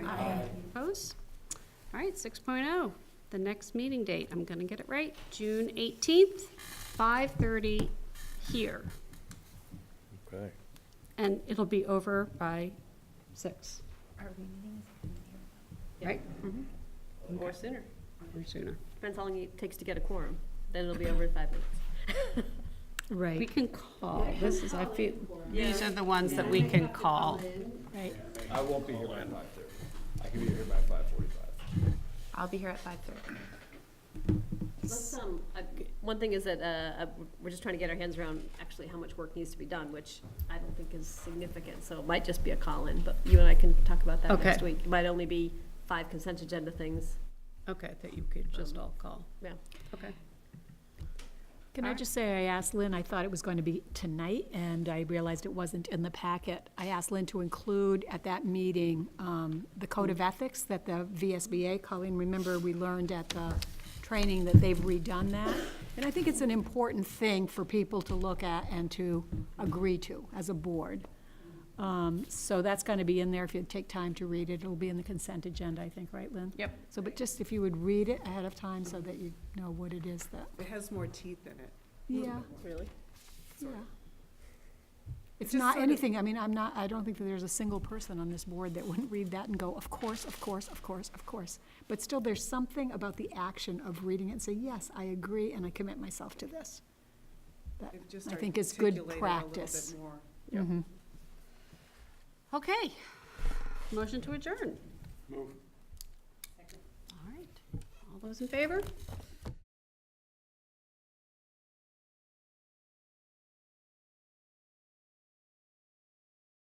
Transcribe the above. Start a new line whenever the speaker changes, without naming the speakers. Opposed? All right, 6.0, the next meeting date, I'm going to get it right, June 18th, 5:30 here.
Okay.
And it'll be over by 6,
Are we meeting?
right?
Or sooner.
Or sooner.
Depends how long it takes to get a quorum. Then it'll be over in five minutes.
We can call, this is, I feel, these
Yeah.
are the ones that we can call. Right.
I won't be here by five thirty. I can be here by five forty-five.
I'll be here at five thirty.
Let's, um, I- One thing is that uh, uh, we're just trying to get our hands around actually how much work needs to be done, which I don't think is significant, so it might just be a call-in, but you and I can talk about that
Okay.
next week. It might only be five consent agenda things,
Okay, that you could just all call.
yeah.
Okay.
Can I
Alright.
just say, I asked Lynn, I thought it was going to be tonight, and I realized it wasn't in the packet. I asked Lynn to include at that meeting um, the code of ethics that the VSBA, Colleen, remember, we learned at the training that they've redone that. And I think it's an important thing for people to look at and to agree to as a board. Um, So that's going to be in there. If you take time to read it, it'll be in the consent agenda, I think, right, Lynn?
Yep.
So, but just if you would read it ahead of time so that you know what it is that,
It has more teeth in it.
yeah.
Really?
Yeah.
sort of.
It's
just
not
sort of-
anything, I mean, I'm not, I don't think that there's a single person on this board that wouldn't read that and go, of course, of course, of course, of course. But still, there's something about the action of reading it and say, yes, I agree and I commit myself to this. That
They've just
I think is good
articulated
practice.
A little bit more.
Okay. Motion to adjourn.
Move.
All right. All those in favor?